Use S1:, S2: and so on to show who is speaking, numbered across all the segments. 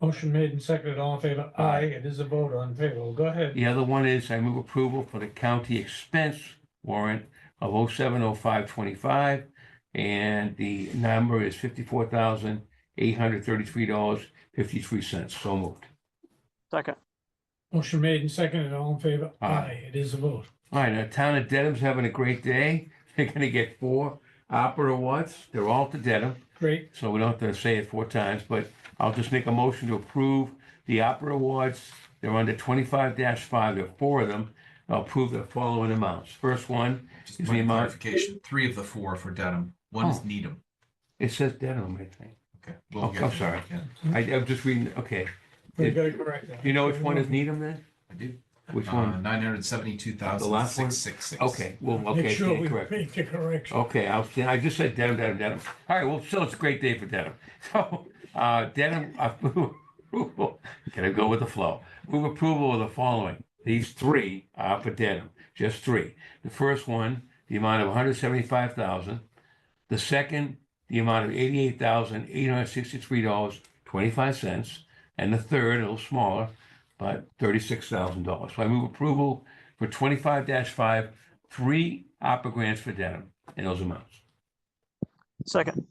S1: Motion made and seconded, all in favor? Aye, it is a vote on payroll. Go ahead.
S2: The other one is I move approval for the county expense warrant of oh seven oh five twenty-five. And the number is fifty-four thousand eight hundred thirty-three dollars fifty-three cents. So moved.
S3: second,
S1: Motion made and seconded, all in favor?
S2: Aye.
S1: Aye, it is a vote.
S2: All right, now town of Dedham's having a great day. They're gonna get four opera awards. They're all to Dedham.
S1: Great.
S2: so we don't have to say it four times, but I'll just make a motion to approve the opera awards. They're under twenty-five five, there are four of them. I'll approve the following amounts. First one,
S4: Just
S2: Is the
S4: one
S2: amount-
S4: clarification, three of the four for Dedham, one is
S2: Oh.
S4: Needham.
S2: it says Dedham, I think.
S4: Okay.
S2: Oh,
S4: we'll get
S2: I'm
S4: to that.
S2: sorry.
S4: Yeah,
S2: I, I'm just reading, okay.
S1: We
S2: Did-
S1: gotta correct that.
S2: Do you know which one is Needham then?
S4: I do. Uh,
S2: Which
S4: Uh-huh.
S2: one?
S4: Nine hundred seventy-two
S2: The
S4: thousand
S2: last one?
S4: six six six.
S2: Okay, well,
S1: Make
S2: okay,
S1: sure we
S2: yeah, correct. Oh.
S1: make the correction.
S2: Okay, I was, I just said Dedham, Dedham, Dedham. All right, well, still, it's a great day for Dedham. So, uh, Dedham, uh, move approval, gotta go with the flow. Move approval of the following. These three are for Dedham, just three. The first one, the amount of one hundred seventy-five thousand. The second, the amount of eighty-eight thousand, eight hundred sixty-three dollars, twenty-five cents. And the third, a little smaller, but thirty-six thousand dollars. So I move approval for twenty-five five, three opera grants for Dedham in those amounts.
S3: second,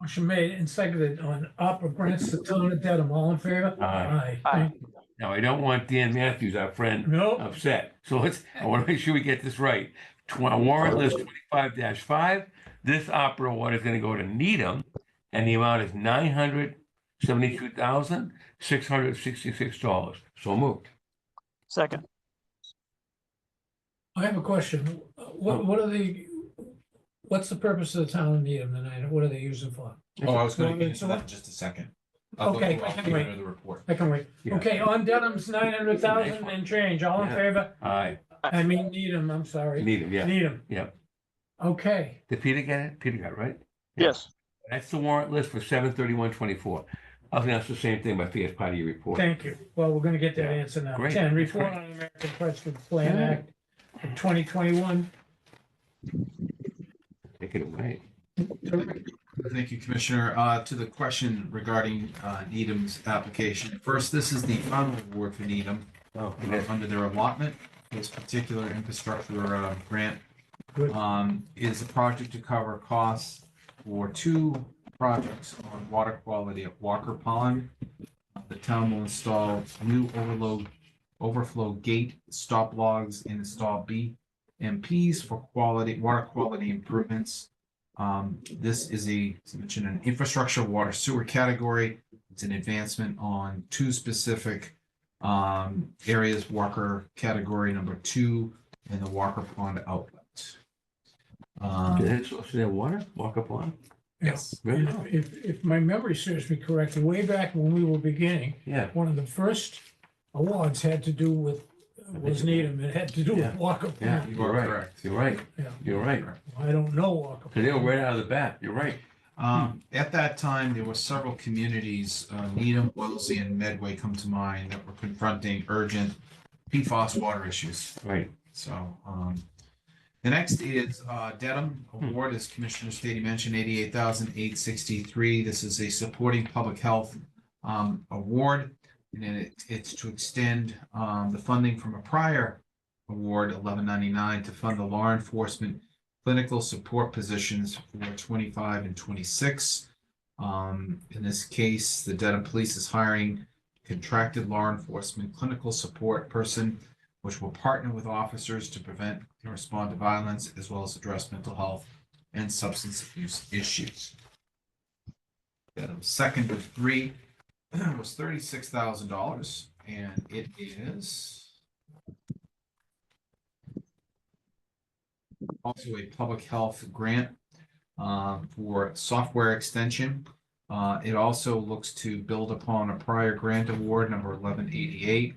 S1: Motion made and seconded on opera grants to town of Dedham, all in favor?
S2: Aye.
S3: Aye.
S2: Now, I don't want Dan Matthews, our friend,
S1: No,
S2: upset. So let's, I want to make sure we get this right. Tw- Warrant list twenty-five five, this opera award is going to go to Needham, and the amount is nine hundred seventy-two thousand, six hundred sixty-six dollars. So moved.
S3: second.
S1: I have a question. What, what are the, what's the purpose of the town of Needham tonight? What are they using for?
S4: Oh, I was gonna
S1: Well,
S4: get into
S1: so-
S4: that in just a second. I thought
S1: Okay,
S4: we were off
S1: anyway.
S4: the end of The report.
S1: I can wait.
S2: Yeah.
S1: Okay, on Dedham's nine hundred thousand and change, all in
S2: Yeah.
S1: favor?
S2: Aye,
S1: I mean Needham, I'm sorry.
S2: Needham, yeah.
S1: Needham.
S2: Yeah.
S1: Okay,
S2: Did Peter get it? Peter got it, right?
S3: Yes,
S2: That's the warrant list for seven thirty-one twenty-four. I was going to ask the same thing, but I think it's part of your report.
S1: thank you. Well, we're gonna get that answer now.
S2: Great.
S1: Ten, report on American Rescue Plan
S2: Yeah.
S1: Act of twenty twenty-one.
S2: Take it away.
S4: Thank you, Commissioner. Uh, to the question regarding, uh, Needham's application. First, this is the final award for Needham.
S2: Oh,
S4: uh, under their allotment, this particular infrastructure uh, grant
S1: Good.
S4: um, is a project to cover costs for two projects on water quality at Walker Pond. The town will install new overload, overflow gate, stop logs, and install BMPs for quality, water quality improvements. Um, This is a, as I mentioned, an infrastructure water sewer category. It's an advancement on two specific um, areas Walker category number two and the Walker Pond outlet.
S2: Did
S4: Um,
S2: it source their water? Walk up on?
S1: Yes.
S2: Very
S1: And
S2: well.
S1: If, if my memory serves me correctly, way back when we were beginning,
S2: Yeah.
S1: one of the first awards had to do with,
S2: think
S1: was
S2: it-
S1: Needham, it had to do with
S2: Yeah.
S1: Walker Pond.
S4: You
S2: You're
S4: are
S2: right.
S4: correct.
S2: You're right.
S1: Yeah.
S2: You're right.
S1: I don't know Walker.
S2: So they were right out of the bat. You're right.
S4: Um, at that time, there were several communities, uh, Needham, Wellesley, and Medway come to mind that were confronting urgent PFAS water issues.
S2: Right.
S4: So, um, the next is, uh, Dedham Award, as Commissioner Stady mentioned, eighty-eight thousand eight sixty-three. This is a supporting public health, um, award. And then it, it's to extend, um, the funding from a prior award, eleven ninety-nine, to fund the law enforcement clinical support positions for twenty-five and twenty-six. Um, in this case, the Dedham Police is hiring contracted law enforcement clinical support person which will partner with officers to prevent and respond to violence as well as address mental health and substance abuse issues. Item second of three was thirty-six thousand dollars and it is also a public health grant uh, for software extension. Uh, It also looks to build upon a prior grant award, number eleven eighty-eight,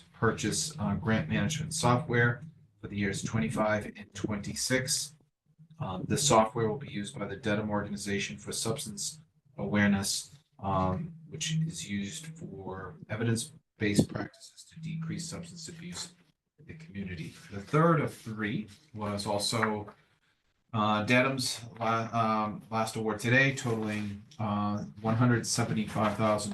S4: to purchase uh, grant management software for the years twenty-five and twenty-six. Um, The software will be used by the Dedham Organization for Substance Awareness, um, which is used for evidence-based practices to decrease substance abuse in the community. The third of three was also uh, Dedham's la- um, last award today totaling one hundred uh, seventy-five thousand